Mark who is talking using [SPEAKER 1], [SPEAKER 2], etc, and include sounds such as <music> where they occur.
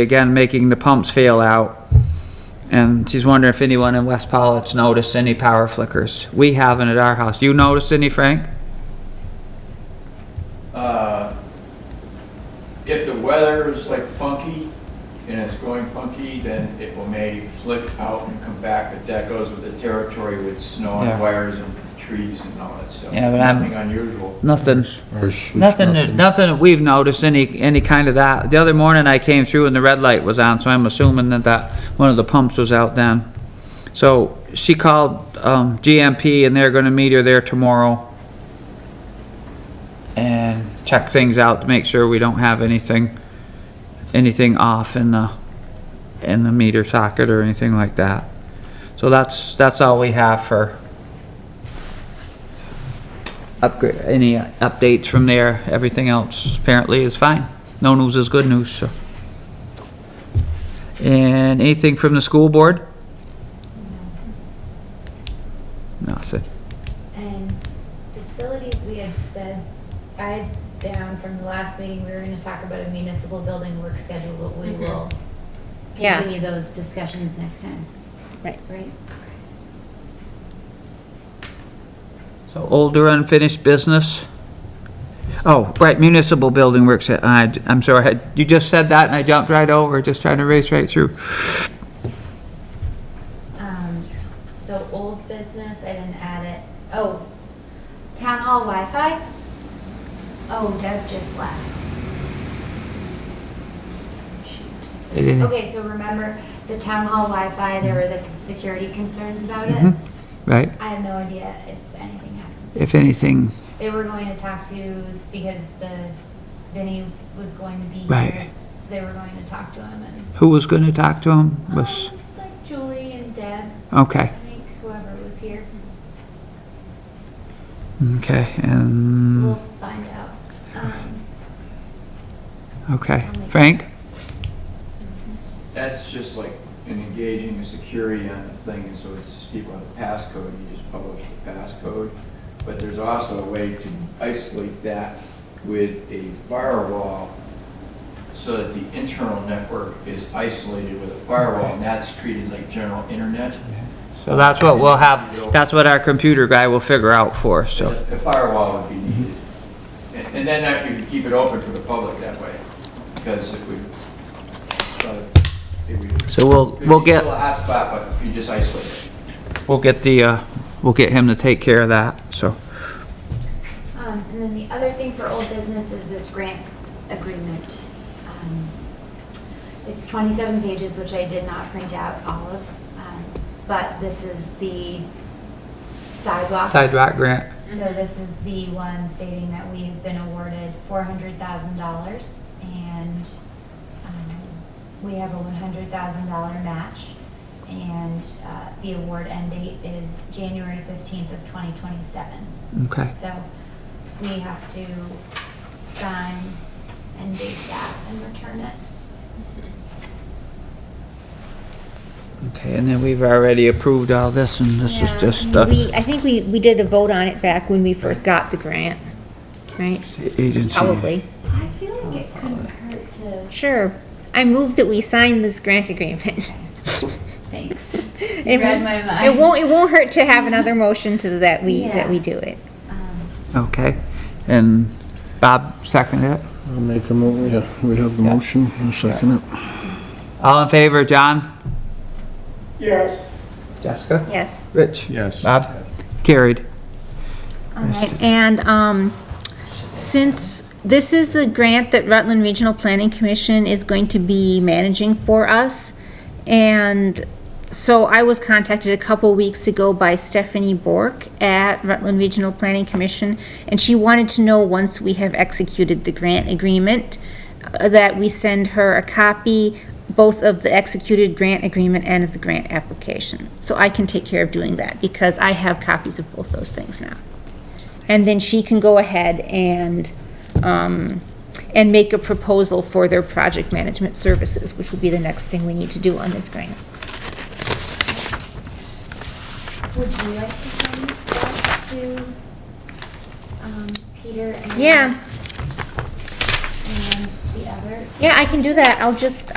[SPEAKER 1] again, making the pumps fail out. And she's wondering if anyone in West Pollitt's noticed any power flickers. We haven't at our house. You noticed any, Frank?
[SPEAKER 2] Uh, If the weather is like funky and it's going funky, then it will may flick out and come back, but that goes with the territory with snow
[SPEAKER 1] Yeah.
[SPEAKER 2] and wires and trees and all that stuff.
[SPEAKER 1] Yeah, but I'm-
[SPEAKER 2] Nothing unusual.
[SPEAKER 1] Nothing.
[SPEAKER 3] Or it's- it's
[SPEAKER 1] Nothing, that- nothing that we've noticed, any, any kind of that. The other morning I came through and the red light was on, so I'm assuming that that, one of the pumps was out then. So she called, um, GMP and they're gonna meet her there tomorrow. And check things out to make sure we don't have anything, anything off in the, in the meter socket or anything like that. So that's, that's all we have for upgrade, any updates from there, everything else apparently is fine. No news is good news, so. And anything from the school board? Nothing.
[SPEAKER 4] And facilities, we had said, I had down from the last meeting, we were gonna talk about a municipal building work schedule, but we
[SPEAKER 5] Mhm.
[SPEAKER 4] will
[SPEAKER 5] Yeah.
[SPEAKER 4] continue those discussions next time,
[SPEAKER 5] Right.
[SPEAKER 4] right?
[SPEAKER 1] So older unfinished business? Oh, right, municipal building works, at- I, I'm sorry, I- you just said that and I jumped right over, just trying to race right through.
[SPEAKER 4] Um, so old business, I didn't add it. Oh, town hall Wi-Fi? Oh, Deb just left.
[SPEAKER 1] I didn't-
[SPEAKER 4] Okay, so remember the town hall Wi-Fi, there were the security concerns about it?
[SPEAKER 1] Mhm. Right,
[SPEAKER 4] I have no idea if anything happened.
[SPEAKER 1] if anything,
[SPEAKER 4] They were going to talk to, because the, Vinny was going to be
[SPEAKER 1] Right.
[SPEAKER 4] here. So they were going to talk to him and,
[SPEAKER 1] who was gonna talk to him was,
[SPEAKER 4] um, like Julie and Deb,
[SPEAKER 1] okay.
[SPEAKER 4] I think, whoever was here.
[SPEAKER 1] Okay, and.
[SPEAKER 4] We'll find out. Um,
[SPEAKER 1] Okay,
[SPEAKER 4] I'll make- Mm-hmm.
[SPEAKER 1] Frank?
[SPEAKER 2] That's just like an engaging the security on the thing, and so it's people have a passcode, you just publish the passcode. But there's also a way to isolate that with a firewall so that the internal network is isolated with a firewall, and that's treated like general internet.
[SPEAKER 1] So that's what we'll have, that's what our computer guy will figure out for us, so.
[SPEAKER 2] The firewall would be needed. And and then that you can keep it open for the public that way, because if we, uh, if we
[SPEAKER 1] So we'll,
[SPEAKER 2] Could
[SPEAKER 1] we'll
[SPEAKER 2] be
[SPEAKER 1] get,
[SPEAKER 2] still a hotspot, but you just isolate it.
[SPEAKER 1] we'll get the, uh, we'll get him to take care of that, so.
[SPEAKER 4] Um, and then the other thing for old business is this grant agreement. Um, It's twenty-seven pages, which I did not print out all of, um, but this is the sidewalk.
[SPEAKER 1] Sidewalk grant,
[SPEAKER 4] So this is the one stating that we have been awarded four hundred thousand dollars and, um, we have a one hundred thousand dollar match. And, uh, the award end date is January fifteenth of twenty twenty-seven.
[SPEAKER 1] okay.
[SPEAKER 4] So we have to sign and date that and return it.
[SPEAKER 1] Okay, and then we've already approved all this, and this is
[SPEAKER 5] Yeah,
[SPEAKER 1] just, uh,
[SPEAKER 5] We, I think we, we did a vote on it back when we first got the grant, right?
[SPEAKER 1] agency.
[SPEAKER 5] Probably.
[SPEAKER 4] I feel like it couldn't hurt to.
[SPEAKER 5] Sure. I move that we sign this grant agreement. <laughs>
[SPEAKER 4] Thanks.
[SPEAKER 5] It
[SPEAKER 4] read
[SPEAKER 5] won't-
[SPEAKER 4] my mind.
[SPEAKER 5] It won't, it won't hurt to <laughs> have another motion to that we, that we
[SPEAKER 4] Yeah.
[SPEAKER 5] do it.
[SPEAKER 4] Um,
[SPEAKER 1] Okay, and Bob seconded it.
[SPEAKER 3] I'll make a mo, yeah, we have the motion, I'll second it.
[SPEAKER 1] All in favor, John? Yes. Jessica?
[SPEAKER 5] Yes.
[SPEAKER 1] Rich?
[SPEAKER 3] Yes.
[SPEAKER 1] Bob? Carried.
[SPEAKER 5] All right, and, um, since this is the grant that Rutland Regional Planning Commission is going to be managing for us, and so I was contacted a couple weeks ago by Stephanie Bork at Rutland Regional Planning Commission, and she wanted to know, once we have executed the grant agreement, uh, that we send her a copy both of the executed grant agreement and of the grant application. So I can take care of doing that, because I have copies of both those things now. And then she can go ahead and, um, and make a proposal for their project management services, which will be the next thing we need to do on this grant.
[SPEAKER 4] Would you like to send this back to, um, Peter and?
[SPEAKER 5] Yeah.
[SPEAKER 4] And the other?
[SPEAKER 5] Yeah, I can do that. I'll just,